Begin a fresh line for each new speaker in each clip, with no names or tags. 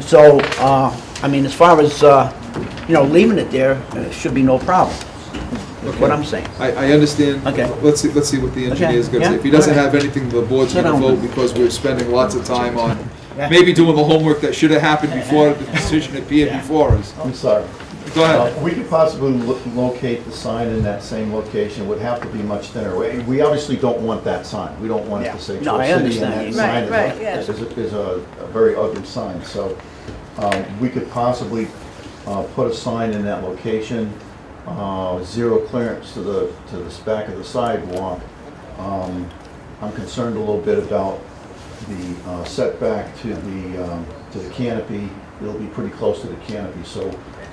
So, uh, I mean, as far as, uh, you know, leaving it there, uh, should be no problem, is what I'm saying.
I, I understand.
Okay.
Let's see, let's see what the engineer's gonna say. If
Okay,
he
yeah,
doesn't
alright.
have anything, the board's
Sit
gonna
down.
vote because we're spending lots of time on
Yeah.
maybe doing the homework that should have happened before the decision appeared before us.
I'm sorry.
Go
Uh,
ahead.
We could possibly lo- locate the sign in that same location, It would have to be much thinner. We- We obviously don't want that sign, we don't want it
Yeah.
to say
No, I
Troy City and
understand.
that
Right,
sign is
right,
a-
yeah.
is, a- is a a very ugly sign, so um, we could possibly uh, put a sign in that location, uh, zero clearance to the, to the back of the sidewalk. Um, I'm concerned a little bit about the uh, setback to the, um, to the canopy. It'll be pretty close to the canopy, so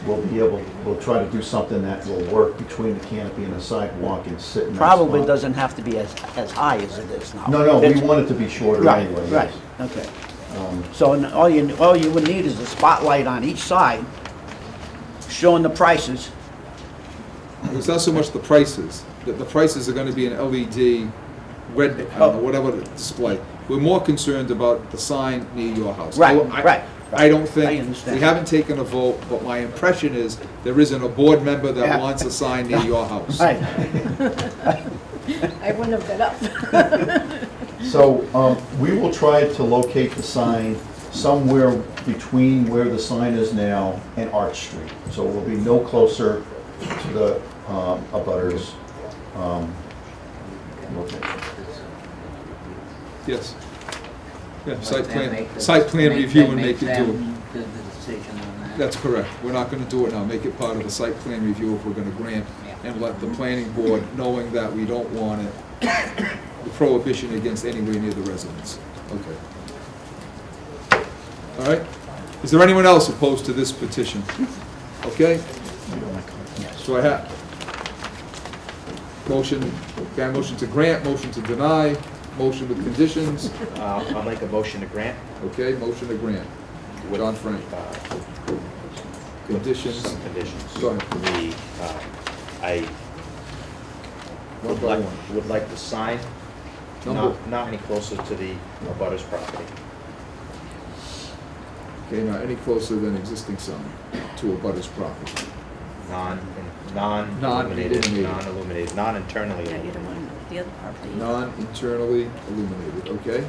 we'll be able, we'll try to do something that will work between the canopy and the sidewalk and sit in that
Probably
spot.
doesn't have to be as, as high as it is now.
No, no, we
It's-
want it to be shorter
Right,
anyway,
right,
yes. Um,
okay. So, and all you, all you would need is a spotlight on each side showing the prices.
It's not so much the prices, that the prices are gonna be an LED, red, I
Oh.
don't know, whatever the display. We're more concerned about the sign near your house.
Right,
I- I-
right.
I don't
I
think,
understand.
we haven't taken a vote, but my impression is there isn't a board member
Yeah.
that wants a sign near your house.
Right,
I wouldn't have got up.
So um, we will try to locate the sign somewhere between where the sign is now and Arch Street. So we'll be no closer to the um, abutters. um, location.
Yes. Yeah,
Let
site
them
plan,
make the-
site plan
make
review
them-
and make it do it.
them do the decision on that.
That's correct. We're not gonna do it now. Make it part of the site plan review if we're gonna grant,
Yeah.
and let the planning board, knowing that we don't want it, the prohibition against anywhere near the residence. Okay. All right? Is there anyone else opposed to this petition? Okay? So I have, motion, can I motion to grant, motion to deny, motion with conditions?
Uh, I'll make a motion to grant.
Okay, motion to grant.
with,
Don Frank.
uh,
Conditions,
Some conditions.
Go ahead.
The, uh, I
one
would
by
like,
one.
would like the sign
Number-
not, not any closer to the abutters property.
Okay, now any closer than existing sign to a butter's property.
Non, non-illuminated,
Non-illuminated.
non-illuminated, non-internally
Yeah, either
illuminated.
one, the other property.
Non-internally illuminated, okay?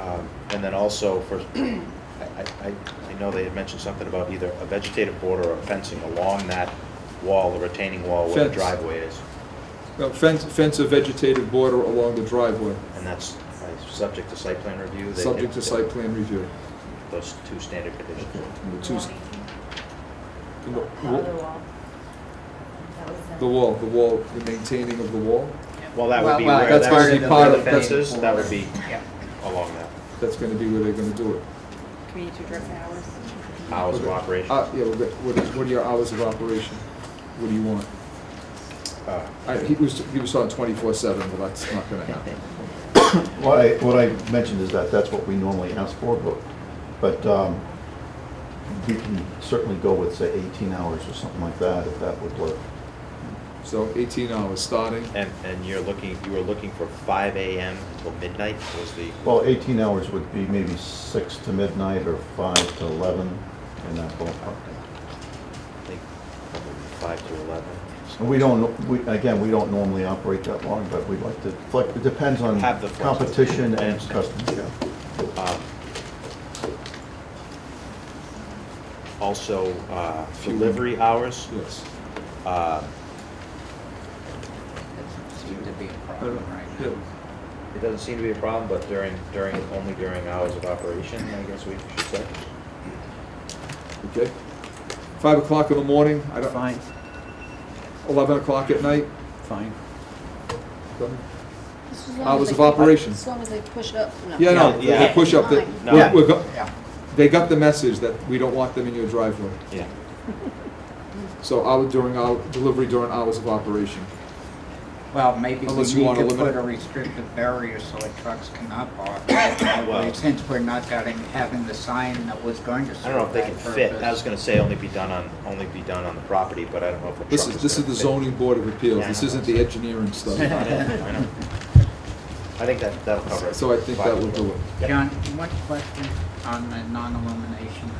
Um, And then also for, I, I, I- I know they had mentioned something about either a vegetative border or fencing along that wall, the retaining wall where the
Fence.
driveway is.
Now, fence, fence of vegetative border along the driveway,
And that's uh, subject to site plan review. They-
subject to site plan review.
Those two standard conditions.
And The two s- the wa-
The other
wa-
wall. That was
the wall, the wall, the maintaining of the wall,
Well, that would be
Well, well,
where,
that's
that's where
already
the
part of- that's-
fences, that would be along that,
that's gonna be where they're gonna do it.
Community driven hours.
hours of
Okay.
operation.
Uh, yeah, we'll get- what is, what are your hours of operation? What do you want?
Uh,
I, he was, he was on twenty-four seven, but that's not gonna happen.
What I, what I mentioned is that that's what we normally ask for, but, but um, we can certainly go with, say, 18 hours or something like that, if that would work.
So eighteen hours starting,
And, and you're looking, you were looking for five AM until midnight was the,
Well, 18 hours would be maybe 6 to midnight or 5 to 11 in that ballpark.
I think, probably five to eleven.
And We don't, we, again, we don't normally operate that long, but we'd like to, flex- it depends on
Have the
competition
flexibility.
and customers.
Um, Also, uh,
Few-
delivery hours,
yes.
uh,
That seems to be a
I don't-
problem right
yeah.
now.
it doesn't seem to be a problem, but during, during, only during hours of operation, I guess we should say.
Okay. Five o'clock in the morning, I don't,
fine,
eleven o'clock at night,
fine.
Hours of operation.
As long as they push up. no.
Yeah, no,
No, yeah.
they push up, the-
Fine.
No.
we're- we're go- they got the message that we don't want them in your driveway.
Yeah.
So hour during, hour delivery during hours of operation.
Well, maybe we
Unless you
need
wanna
to
limit
put
it.
a restrictive barrier so the trucks cannot park.
Well-
Since we're not getting, having the sign that was going to
I don't know
serve
if they
that
can
purpose.
fit, I was gonna say only be done on, only be done on the property, but I don't know if a truck is
This is, this is the
gonna fit.
zoning board of appeals,
Yeah, I
this
know.
isn't the engineering
I
stuff.
know, I know. I think that, that'll cover it.
So I think that will do it.
Yep.
John, one question. on the non-illumination